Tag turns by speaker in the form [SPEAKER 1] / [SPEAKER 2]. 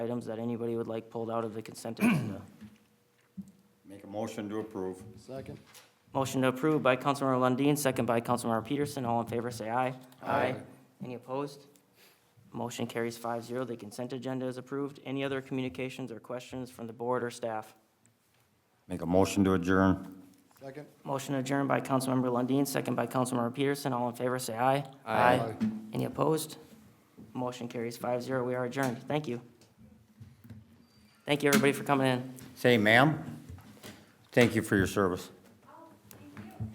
[SPEAKER 1] items that anybody would like pulled out of the consent agenda.
[SPEAKER 2] Make a motion to approve.
[SPEAKER 3] Second.
[SPEAKER 1] Motion to approve by Councilmember Lundin, second by Councilmember Peterson. All in favor, say aye.
[SPEAKER 2] Aye.
[SPEAKER 1] Any opposed? Motion carries five zero. The consent agenda is approved. Any other communications or questions from the board or staff?
[SPEAKER 2] Make a motion to adjourn.
[SPEAKER 3] Second.
[SPEAKER 1] Motion adjourned by Councilmember Lundin, second by Councilmember Peterson. All in favor, say aye.
[SPEAKER 3] Aye.
[SPEAKER 1] Any opposed? Motion carries five zero. We are adjourned. Thank you. Thank you, everybody, for coming in.
[SPEAKER 2] Say, ma'am, thank you for your service.